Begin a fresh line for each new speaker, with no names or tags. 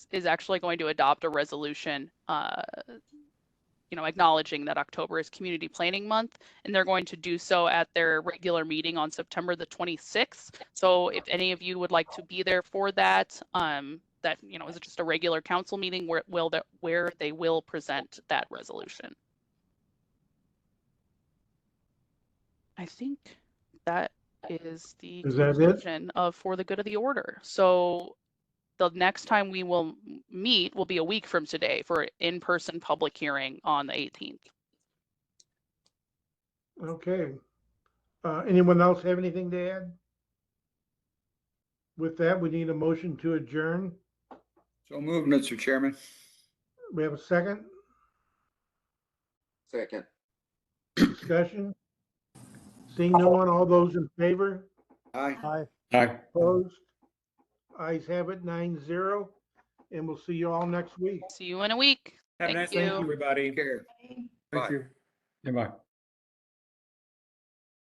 is actually going to adopt a resolution, uh, you know, acknowledging that October is Community Planning Month, and they're going to do so at their regular meeting on September the 26th. So if any of you would like to be there for that, um, that, you know, is just a regular council meeting where will that, where they will present that resolution. I think that is the
Is that it?
conclusion of For the Good of the Order. So the next time we will m- meet will be a week from today for an in-person public hearing on the 18th.
Okay. Uh, anyone else have anything to add? With that, we need a motion to adjourn.
So moved, Mr. Chairman.
We have a second
Second.
discussion. Seeing no one, all those in favor,
Aye.
Aye.
Aye.
opposed? Ayes have it, nine zero, and we'll see you all next week.
See you in a week.
Have a
Thank
nice day,
you.
everybody.
Take care. Bye.
Goodbye.